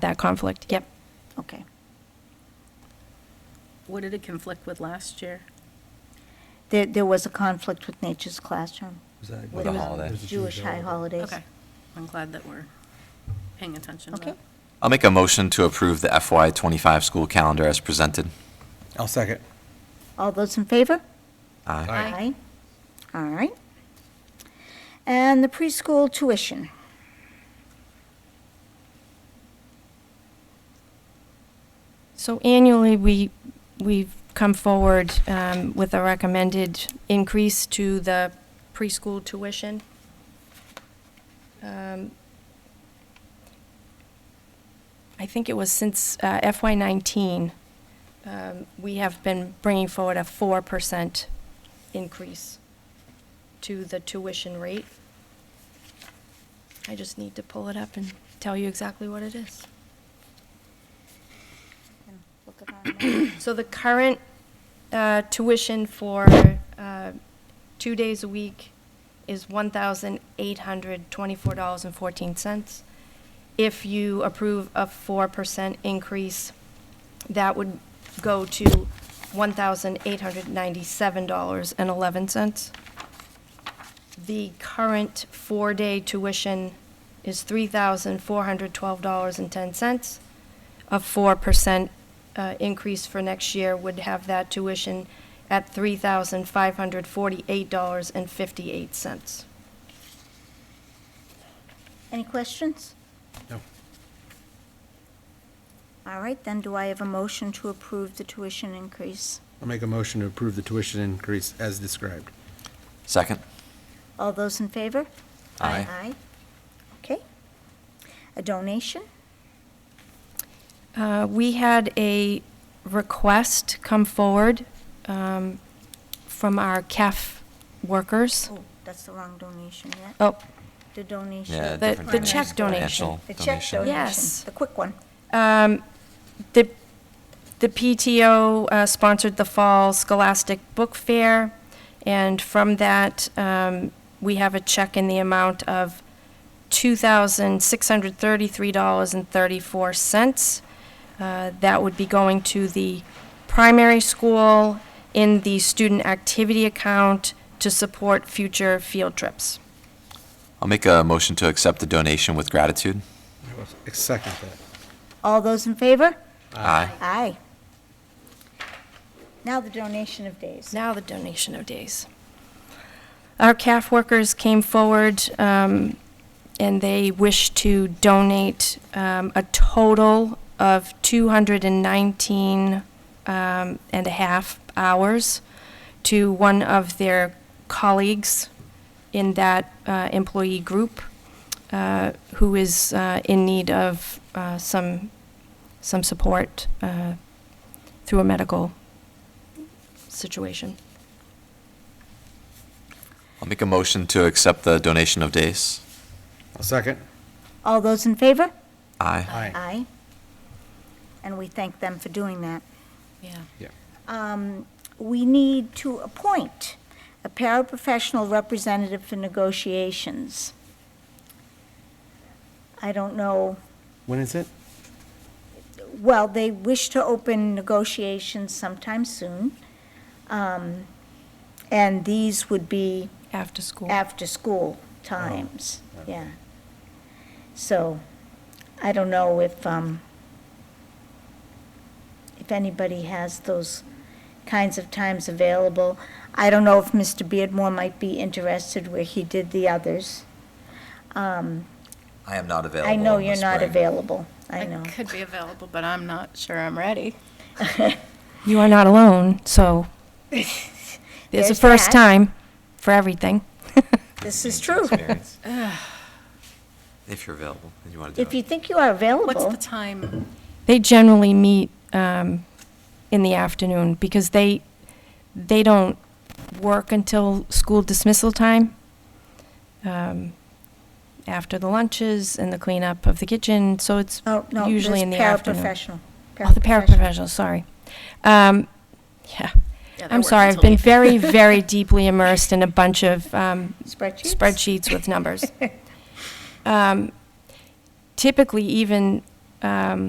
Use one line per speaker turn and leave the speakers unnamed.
that conflict, yep.
Okay.
What did it conflict with last year?
There, there was a conflict with Nature's Classroom.
Was that-
with
With a holiday.
There's a
Jewish high holidays.
Okay, I'm glad that we're paying attention to
Okay.
that.
I'll make a motion to approve the FY twenty-five school calendar as presented.
I'll second.
All those in favor?
Aye.
Aye. All right. And the preschool tuition.
So annually, we, we've come forward um, with a recommended increase to the preschool tuition. Um, I think it was since uh, FY '19, um, we have been bringing forward a 4% increase to the tuition rate. I just need to pull it up and tell you exactly what it is. So the current uh, tuition for uh, two days a week is $1,824.14. If you approve a 4% increase, that would go to $1,897.11. The current four-day tuition is $3,412.10. A 4% uh, increase for next year would have that tuition at $3,548.58.
Any questions?
No.
All right, then do I have a motion to approve the tuition increase?
I'll make a motion to approve the tuition increase as described.
Second?
All those in favor?
Aye.
Aye. Okay. A donation?
Uh, We had a request come forward um, from our CAF workers.
Oh, that's the wrong donation, yeah.
Oh,
The donation.
Yeah,
The-
different
the
donation.
check donation.
Financial
The check donation.
Yes.
The quick one.
um, the, the PTO uh, sponsored the Fall Scholastic Book Fair, and from that, um, we have a check in the amount of $2,633.34. Uh, That would be going to the primary school in the student activity account to support future field trips.
I'll make a motion to accept the donation with gratitude.
I Second that.
All those in favor?
Aye.
Aye. Now the donation of days.
Now the donation of days. Our CAF workers came forward um, and they wish to donate um, a total of 219 um, and a half hours to one of their colleagues in that uh, employee group uh, who is uh, in need of uh, some, some support uh, through a medical situation.
I'll make a motion to accept the donation of days.
I'll second.
All those in favor?
Aye.
Aye. And we thank them for doing that.
Yeah.
Yeah.
Um, We need to appoint a paraprofessional representative for negotiations. I don't know,
When is it?
well, they wish to open negotiations sometime soon. Um, And these would be
After
Oh.
school.
after-school times, yeah. So, I don't know if, um, if anybody has those kinds of times available. I don't know if Mr. Beardmore might be interested where he did the others. Um,
I am not available.
I know
in the
you're not
spring.
available, I know.
could be available, but I'm not sure I'm ready.
You are not alone, so it's the
There's
first
that.
time for everything.
This is true.
Experience. If you're available and you want to
If
do
you
it.
think you are
What's
available,
the time?
They generally meet um, in the afternoon because they, they don't work until school dismissal time, um, after the lunches and the cleanup of the kitchen, so it's
oh, no, there's
usually in the afternoon.
paraprofessional.
Oh, the paraprofessional, sorry. Um, yeah.
Yeah, they
I'm
work
sorry, I've
until
been very,
evening.
very deeply immersed in a bunch of um,
Spreadsheets?
spreadsheets with numbers. Um, Typically, even um,